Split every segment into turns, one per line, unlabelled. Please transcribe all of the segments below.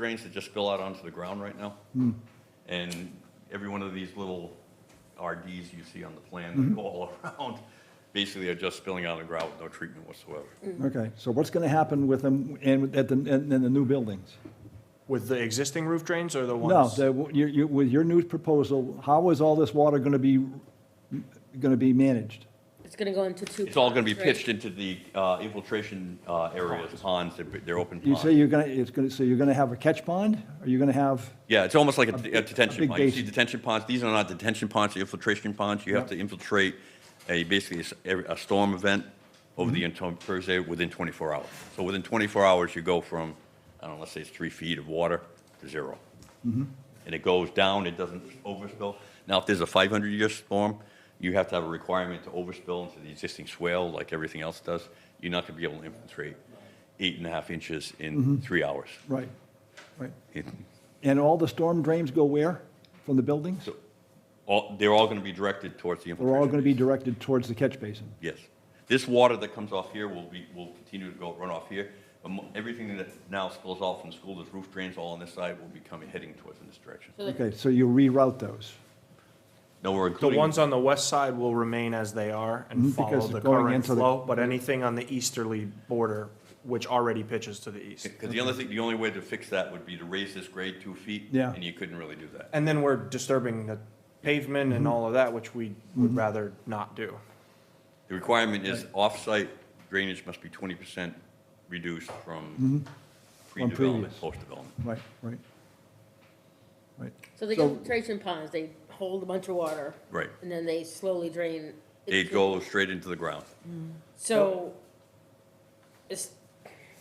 drains that just spill out onto the ground right now.
Hmm.
And every one of these little RDs you see on the plan
Hmm.
that go all around, basically are just spilling out of the ground with no treatment whatsoever.
Okay, so what's going to happen with them and with- at the, and and the new buildings?
With the existing roof drains or the
No,
ones?
the- you- you- with your new proposal, how is all this water going to be, going to be managed?
It's gonna go into two.
It's all gonna be
ponds, right?
pitched into the uh, infiltration uh, areas, ponds, they're- they're open
You say
ponds.
you're going to, it's going to, so you're going to have a catch pond? Are you going to have,
Yeah, it's almost like a
big-
a detention
a big
pond. You see
basin.
detention ponds, these are not detention ponds, they're infiltration ponds. You have to infiltrate a, basically a s- every- a storm event over the,
Mm-hmm.
entire Thursday within 24 hours. So within 24 hours, you go from, I don't know, let's say it's three feet of water to zero.
Mm-hmm.
And it goes down, it doesn't overspill. Now, if there's a 500-year storm, you have to have a requirement to overspill into the existing swale like everything else does. You're not gonna be able to infiltrate eight and a half inches
Mm-hmm.
in three hours.
right, right.
It-
And all the storm drains go where? From the buildings?
So, all, they're all gonna be directed towards the
They're all
infiltration.
going to be directed towards the catch basin?
Yes. This water that comes off here will be, will continue to go run off here. But mo- everything that now spills off from the school, there's roof drains all on this side, will be coming, heading towards in this direction.
So the-
Okay, so you reroute those?
No, we're
The
including.
ones on the west side will remain as they are and follow
Mm, because
the
going
current
into the-
flow, but anything on the easterly border, which already pitches to the east.
Because the only thing, the only way to fix that would be to raise this grade two feet.
Yeah.
And you couldn't really do that.
And then we're disturbing the pavement
Mm-hmm.
and all of that, which we would rather not do.
The requirement is off-site drainage must be twenty percent reduced from pre-development,
Mm-hmm. previous.
post-development.
Right, right. Right.
So the
So-
infiltration ponds, they hold a bunch of water.
Right.
And then they slowly drain.
It
into-
goes straight into the ground.
So, it's,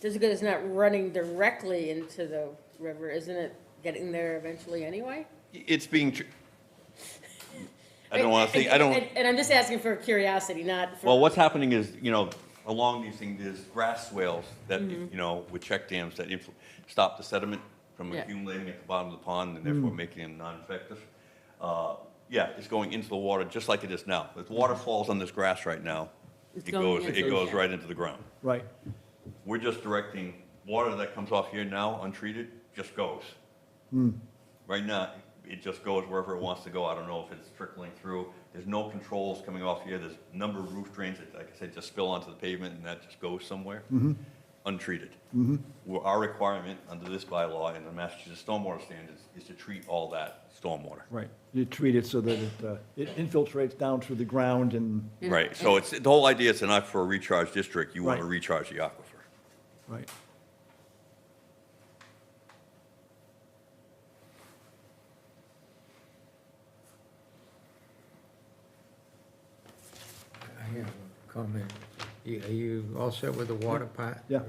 just because it's not running directly into the river, isn't it getting there eventually anyway?
It's being, tr- I don't want to think, I don't.
And- And I'm just asking for curiosity, not for.
Well, what's happening is, you know, along these things, there's grass swales that,
Mm-hmm.
you know, with check dams that influ- stop the sediment from
Yeah. Mm.
accumulating at the bottom of the pond and therefore making them non-effective. Uh, Yeah, it's going into the water just like it is now. If water falls on this grass right now,
It's
it
going
goes,
into
it
the-
goes right into the ground.
Right,
We're just directing water that comes off here now untreated, just goes. Right now, it just goes wherever it wants to go. I don't know if it's trickling through. There's no controls coming off here. There's a number of roof drains that, like I said, just spill onto the pavement and that just goes somewhere. Untreated. Well, Our requirement under this bylaw and the Massachusetts stormwater standards is to treat all that stormwater.
right. You treat it so that it uh, it infiltrates down through the ground and,
Right, so it's, the whole idea is not for a recharge district. You want to
Right.
recharge the aquifer.
right.
I have a comment. You- Are you all set with the water part?
Yeah.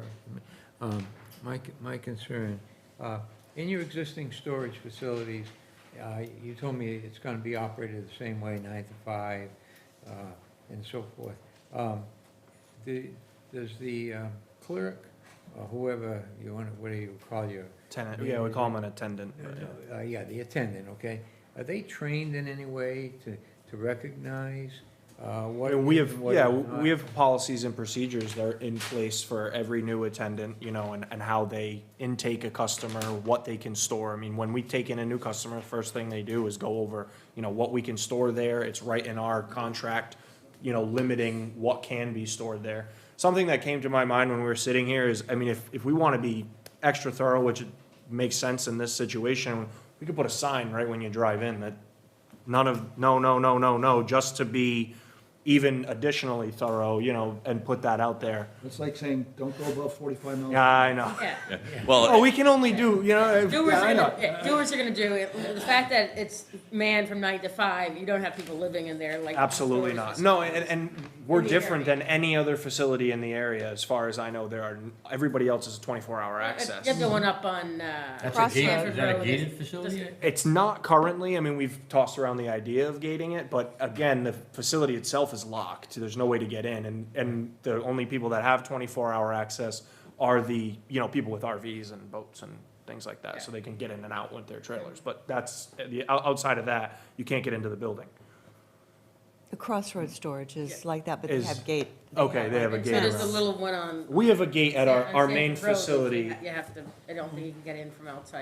Um, My, c- my concern, uh, in your existing storage facilities, uh, you told me it's going to be operated the same way, nine to five, uh, and so forth. Um, the- Does the um, clerk, or whoever you want, to what do you call your?
Tenant, yeah, we call them an attendant. but yeah.
Uh, Yeah, the attendant, okay. Are they trained in any way to, to recognize uh, what?
And we
is
have,
and what
yeah,
is not?
we have policies and procedures that are in place for every new attendant, you know, and, and how they intake a customer, what they can store. I mean, when we take in a new customer, first thing they do is go over, you know, what we can store there. It's right in our contract, you know, limiting what can be stored there. Something that came to my mind when we were sitting here is, I mean, if, if we want to be extra thorough, which makes sense in this situation, we could put a sign right when you drive in that none of, no, no, no, no, no, just to be even additionally thorough, you know, and put that out there.
It's like saying, don't go above 45 miles.
Yeah, I know.
Yeah.
Well,
Oh, we can only do, you know, if-
Doers
yeah, I
are
know.
gonna, yeah, doers are gonna do it. The fact that it's manned from nine to five, you don't have people living in there like.
Absolutely not.
doors.
No, and, and we're
In the
different than any other facility in the area, as far as I know, there are, everybody else is twenty-four
Uh,
hour access.
Get the one up on, uh.
That's a
Cross
gated,
Stanford
is that a
Road.
gated
It's-
facility?
It's not currently, I mean, we've tossed around the idea of gating it, but again, the facility itself is locked, there's no way to get in, and, and the only people that have twenty-four hour access are the, you know, people with RVs and boats and things like that, so they can get in and out with their trailers, but that's, the, out- outside of that, you can't get into the building.
The Crossroads storage is like that, but they
Is-
have gate.
Okay, they have a gate
So there's a
around.
little one on.
We have a gate at our,
on
our
Stanford
main
Road that you
facility.
ha- You have to, I don't think you can get in from outside.